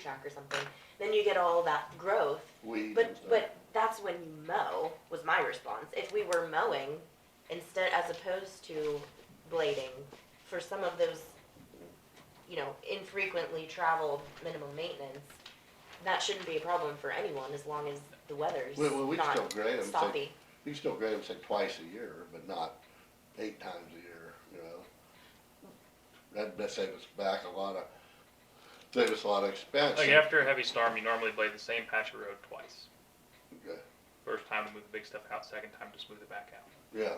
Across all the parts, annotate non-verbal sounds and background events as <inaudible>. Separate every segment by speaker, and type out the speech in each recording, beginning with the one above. Speaker 1: track or something, then you get all that growth.
Speaker 2: weeds and
Speaker 1: But,
Speaker 2: stuff.
Speaker 1: but that's when you mow, was my response. If we were mowing instead, as opposed to blading, for some of those, you know, infrequently traveled minimum maintenance, that shouldn't be a problem for anyone as long as the weather's
Speaker 2: Well, well, we can still
Speaker 1: not
Speaker 2: grade them, say,
Speaker 1: soppy.
Speaker 2: we can still grade them, say, twice a year, but not eight times a year, you know? That'd best save us back a lot of, save us a lot of expense.
Speaker 3: Like after a heavy storm, you normally blade the same patch of road twice.
Speaker 2: Okay,
Speaker 3: First time to move the big stuff out, second time to smooth it back out.
Speaker 2: Yeah,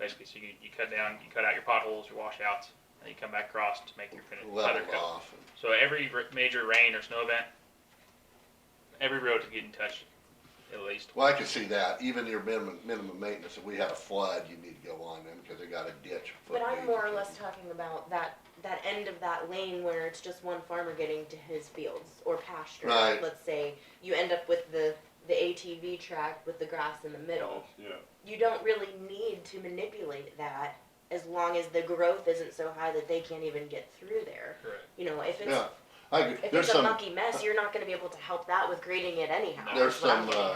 Speaker 3: Basically, so you, you cut down, you cut out your potholes, your washouts, and you come back across to make your finish leather
Speaker 2: level
Speaker 3: coat.
Speaker 2: off, and-
Speaker 3: So every r- major rain or snow event, every road can get in touch at least.
Speaker 2: well, I can see that, even your minimum, minimum maintenance, if we had a flood, you need to go on them, cause they got a ditch. a foot
Speaker 1: But I'm
Speaker 2: deep
Speaker 1: more or less
Speaker 2: something.
Speaker 1: talking about that, that end of that lane where it's just one farmer getting to his fields or pasture.
Speaker 2: Right.
Speaker 1: Let's say you end up with the, the ATV track with the grass in the middle.
Speaker 4: Yeah,
Speaker 1: You don't really need to manipulate that as long as the growth isn't so high that they can't even get through there.
Speaker 3: Correct.
Speaker 1: You know, if it's,
Speaker 2: Yeah, I, agree.
Speaker 1: if
Speaker 2: there's
Speaker 1: it's a
Speaker 2: some,
Speaker 1: mucky mess, you're not gonna be able to help that with grading it anyhow.
Speaker 2: There's
Speaker 1: is what I'm
Speaker 2: some,
Speaker 1: getting
Speaker 2: uh,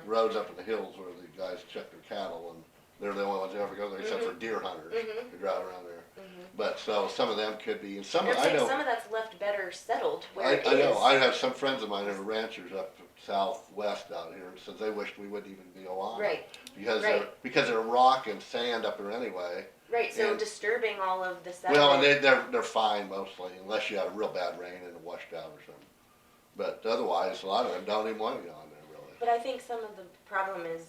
Speaker 1: at.
Speaker 2: roads up in the hills where the guys check their cattle and they're the only ones that ever go there except for deer hunters
Speaker 1: Mhm.
Speaker 2: who drive around there.
Speaker 1: Mhm.
Speaker 2: But so some of them could be, and some,
Speaker 1: And I'm
Speaker 2: I
Speaker 1: saying
Speaker 2: know,
Speaker 1: some of that's left better settled where
Speaker 2: I,
Speaker 1: it is.
Speaker 2: I know, I have some friends of mine that are ranchers up southwest out here and said they wished we wouldn't even be alive.
Speaker 1: Right.
Speaker 2: Because they're,
Speaker 1: right.
Speaker 2: because they're rock and sand up there anyway.
Speaker 1: Right, so
Speaker 2: And-
Speaker 1: disturbing all of the sediment.
Speaker 2: Well, and they, they're, they're fine mostly unless you have real bad rain and it washed out or something. But otherwise, a lot of them don't even want to get on there really.
Speaker 1: But I think some of the problem is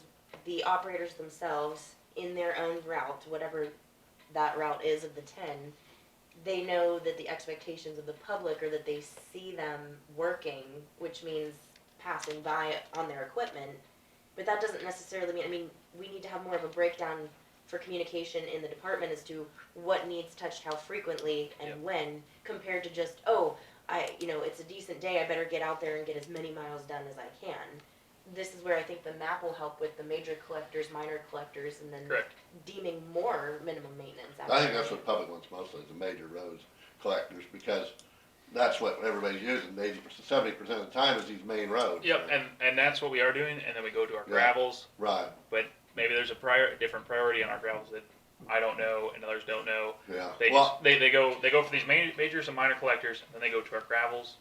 Speaker 1: the operators themselves in their own route, whatever that route is of the ten, they know that the expectations of the public are that they see them working, which means passing by on their equipment. But that doesn't necessarily mean, I mean, we need to have more of a breakdown for communication in the department as to what needs touched how frequently
Speaker 3: Yep.
Speaker 1: and when, compared to just, oh, I, you know, it's a decent day, I better get out there and get as many miles done as I can. This is where I think the map will help with the major collectors, minor collectors, and then
Speaker 3: Correct.
Speaker 1: deeming more minimum maintenance.
Speaker 2: I think that's what public wants mostly, the major roads collectors, because that's what everybody's using, eighty percent, seventy percent of the time is these main roads.
Speaker 3: Yep, and, and that's what we are doing, and then we go to our
Speaker 2: Yeah.
Speaker 3: gravels.
Speaker 2: Right,
Speaker 3: Maybe there's a prior, different priority on our gravels that I don't know and others don't know.
Speaker 2: yeah,
Speaker 3: They
Speaker 2: well,
Speaker 3: just, they, they go they go for these ma- majors and minor collectors, and then they go to our gravels,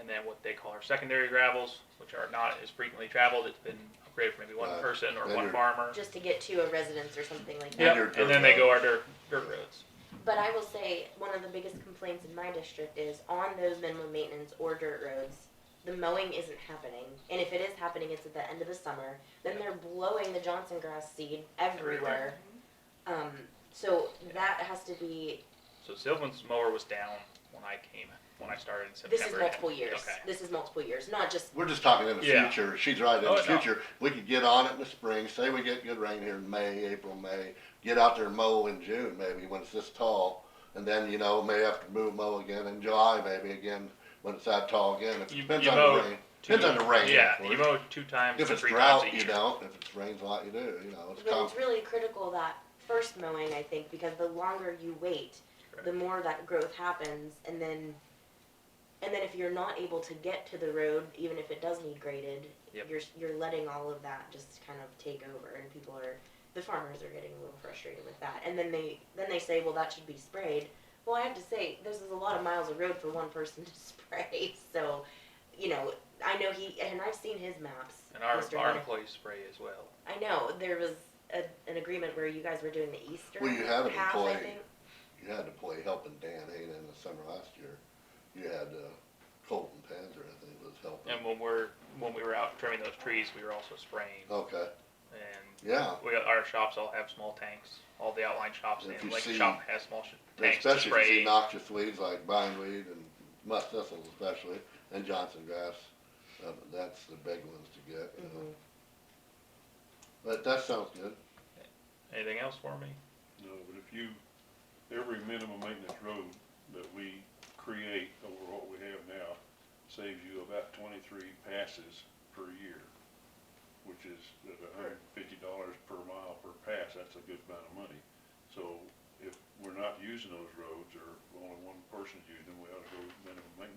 Speaker 3: and then what they call our secondary gravels, which are not as frequently traveled. It's been upgraded for maybe one
Speaker 2: Right.
Speaker 3: person or
Speaker 2: Uh, Then
Speaker 3: one
Speaker 2: you're-
Speaker 3: farmer.
Speaker 1: Just to get to a residence or something like
Speaker 3: Yep,
Speaker 1: that.
Speaker 2: your
Speaker 3: and
Speaker 2: dirt
Speaker 3: then they
Speaker 2: road.
Speaker 3: go our dirt, dirt roads.
Speaker 1: But I will say, one of the biggest complaints in my district is on those minimum maintenance or dirt roads, the mowing isn't happening. And if it is happening, it's at the end of the summer. Then they're blowing the Johnson grass seed everywhere. Um, so that has to be,
Speaker 3: So Sylvan's mower was down when I came when I started in September.
Speaker 1: this is multiple years.
Speaker 3: Okay.
Speaker 1: This is multiple years, not just,
Speaker 2: we're just talking in the
Speaker 3: Yeah.
Speaker 2: future, she's right, in
Speaker 3: Oh,
Speaker 2: the
Speaker 3: no.
Speaker 2: future, we could get on it in the spring, say we get good rain here in May, April, May, get out there and mow in June maybe, when it's this tall, and then, you know, may have to move mow again in July maybe again, when it's that tall again, it
Speaker 3: You-
Speaker 2: depends
Speaker 3: you
Speaker 2: on the
Speaker 3: mow
Speaker 2: rain.
Speaker 3: Two-
Speaker 2: Depends on the rain,
Speaker 3: Yeah,
Speaker 2: of
Speaker 3: you
Speaker 2: course.
Speaker 3: mow two times
Speaker 2: If
Speaker 3: to
Speaker 2: it's
Speaker 3: three times
Speaker 2: drought,
Speaker 3: a
Speaker 2: you
Speaker 3: year.
Speaker 2: don't, if it's rains a lot, you do, you know, it's
Speaker 1: but
Speaker 2: complicated.
Speaker 1: it's really critical that first mowing, I think, because the longer you wait, the more that growth happens and then and then if you're not able to get to the road even if it does need graded
Speaker 3: Yep.
Speaker 1: you're you're letting all of that just kind of take over and people are the farmers are getting a little frustrated with that and then they then they say well that should be sprayed well i have to say this is a lot of miles of road for one <laughs> person to spray so you know i know he and i've seen his maps
Speaker 3: And our,
Speaker 1: Mr.
Speaker 3: our
Speaker 1: Hunter.
Speaker 3: employees spray as well.
Speaker 1: i know there was a, an agreement where you guys were doing the eastern
Speaker 2: Well, you had an
Speaker 1: half, I
Speaker 2: employee.
Speaker 1: think.
Speaker 2: You had to play helping Dan Hayden in the summer last year. You had uh, Colton Panzer, I think, was helping.
Speaker 3: And when we're when we were out trimming those trees, we were also spraying.
Speaker 2: Okay,
Speaker 3: And
Speaker 2: yeah.
Speaker 3: We got, our shops all have small tanks. All the outline shops
Speaker 2: If
Speaker 3: and
Speaker 2: you
Speaker 3: like
Speaker 2: see-
Speaker 3: shop has small sh- tanks to
Speaker 2: Especially if you see
Speaker 3: spray.
Speaker 2: noxious weeds like bindweed and musk thistles especially, and Johnson grass. Uh, That's the big ones to get, you know.
Speaker 1: Mhm.
Speaker 2: But that sounds good.
Speaker 3: Anything else for me?
Speaker 4: no, but if you, every minimum maintenance road that we create over what we have now saves you about twenty-three passes per year, which is at a hundred and fifty dollars per mile per pass, that's a good amount of money. So if we're not using those roads, or only one person's using them, we ought to go with minimum maintenance.